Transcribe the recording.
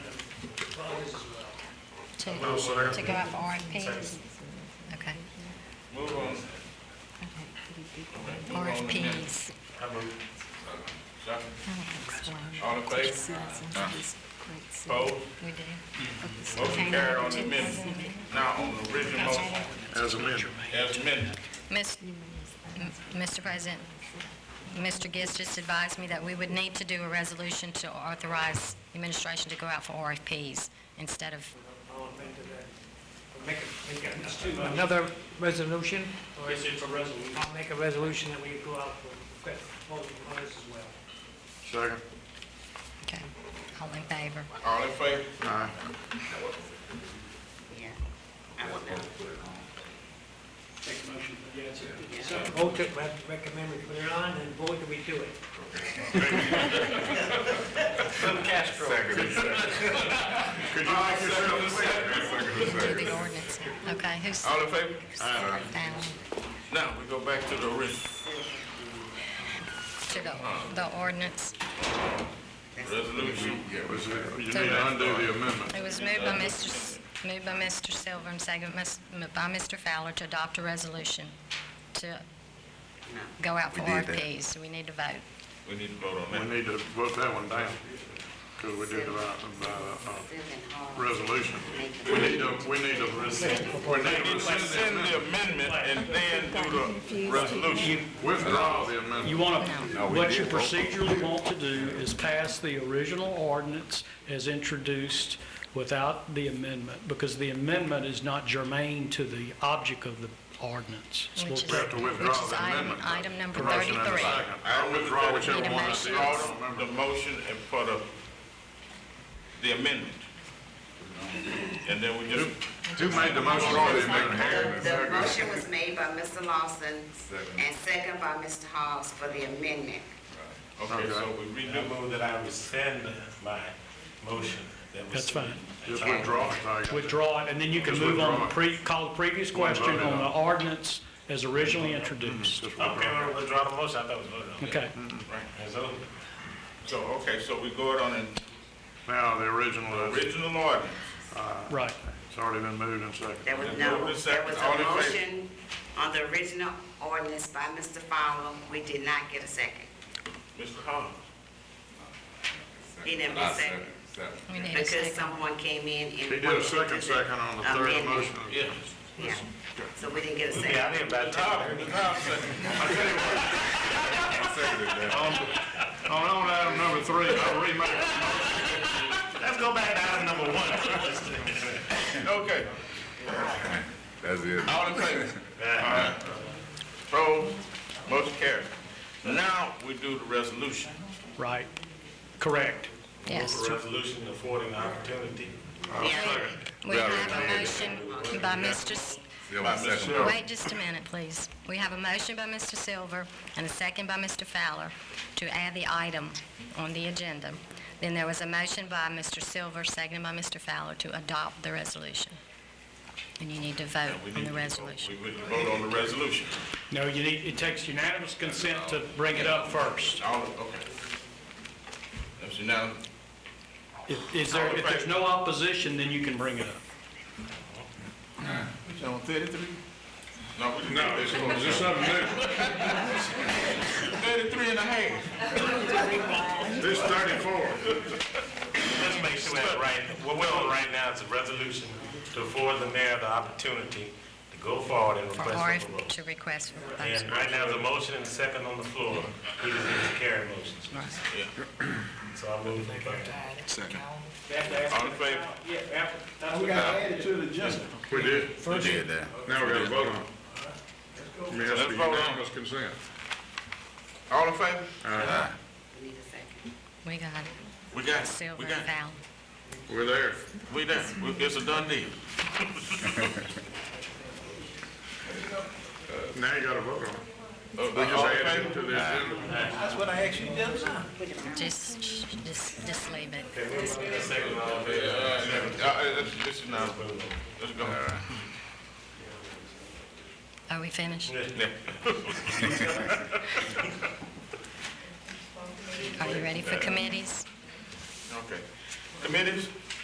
as well. to, Well, sir. to go out for RFPs? Okay. Move on, RFPs. I move. second, All all in favor? Opposed? Mm-hmm. We do. Motion carried on the amendment. Now, on the original motion, As amended. as amended, Miss- m- Mr. President, Mr. Giz just advised me that we would need to do a resolution to authorize the administration to go out for RFPs instead of, All in favor of that? Or Make a, make a- it's too much. Another resolution, Or is it a resolution? I'll make a resolution that we go out for, that proposal on this as well. Second. okay, all in favor? all in favor? Aye. So vote that we have to recommend we put it on and vote that we do it. From Castro. Could you make Second, yourself? second, Do second. the ordinance. Okay, who's All in favor? Oh, Aye. down Now, we go back to the original to the, the ordinance? resolution. Was it- You need to undo the amendment. It was moved by Mr., S- moved by Mr. Silver and seconded mis- m- by Mr. Fowler to adopt a resolution to go out for We did that. RFPs, so we need to vote. We need to vote on We that. need to vote that one down, because we did about, uh, resolution. We need to, we need to rescind, we need to rescind Rescind the the amendment and then do the resolution. amendment. Withdraw the You amendment. want to, No, we what you did roll call. procedurally want to do is pass the original ordinance as introduced without the amendment, because the amendment is not germane to the object of the ordinance. So we'll Which is- We have to Which withdraw is the item- amendment. item number The motion and the 33. second. I'll withdraw whichever Need a one I motion. did, I don't The remember. motion and for the, the amendment. And then we just, Who made the motion or the amendment? The motion was made by Mr. Lawson and second by Mr. Hawes for the amendment. okay, so we I redo. move that I rescind my motion that was. That's fine. Just withdraw it, Tiger. Withdraw it, and then you can Just move on, withdraw to it. pre, call the previous question on the ordinance as originally introduced. Just Okay, withdraw. well, withdraw the motion, I thought it was voted Mm-hmm. on. Okay, It's over. So, okay, so we go it on an Now, the original, uh, original ordinance. right. it's already been moved and seconded. There was And no, move to there second. was All in a favor? motion on the original ordinance by Mr. Fowler. We did not get a second. Mr. Holmes, He didn't I second We need a because second. someone came in and. He did wanted a to do second the second on the third amendment. motion. yes. Yeah, so we didn't get a Yeah, second. I did about ten. Now, now, second. On, on item number three, I'll remake it. Let's go back to item number one. Okay, That's it. all in favor? Alright. Opposed, motion carried. Now, we do the resolution. Right, correct. Yes. For resolution affording opportunity. We have a motion by Mr., S- Silver second. wait just a minute, please. We have a motion by Mr. Silver and a second by Mr. Fowler to add the item on the agenda. Then there was a motion by Mr. Silver, seconded by Mr. Fowler to adopt the resolution. And you need to vote We on need the to vote- resolution. We would vote on the resolution. No, you need, it takes unanimous consent to bring it up first. All, okay. That's unanimous. If- Is there, if there's no opposition, then you can bring it up. No, we No, it's something new. thirty-three and a half. This thirty-four. Let's make sure that right, what we're on right now is a resolution to afford the mayor the opportunity to go forward and For request a RF, vote. to request for proposal. And right now, there's a motion and a second on the floor. We just need to carry motions. So I move to carry. Second. All in favor? Yeah, after, that's We got added to the We did. We did that. Now we gotta vote on it. I mean, it has to Let's be vote on it. unanimous consent. All in favor? We need a second. We got it. We got it, Silver we and got it. Fowler. We're there. We there, We- it's a done deal. Uh, Now you gotta vote on it. Uh, We just all in added it favor? to the agenda. Just, just, just leave it. Uh, uh, it's, it's unanimous. Let's go. Are we finished? Are you ready for committees? Okay. Committees,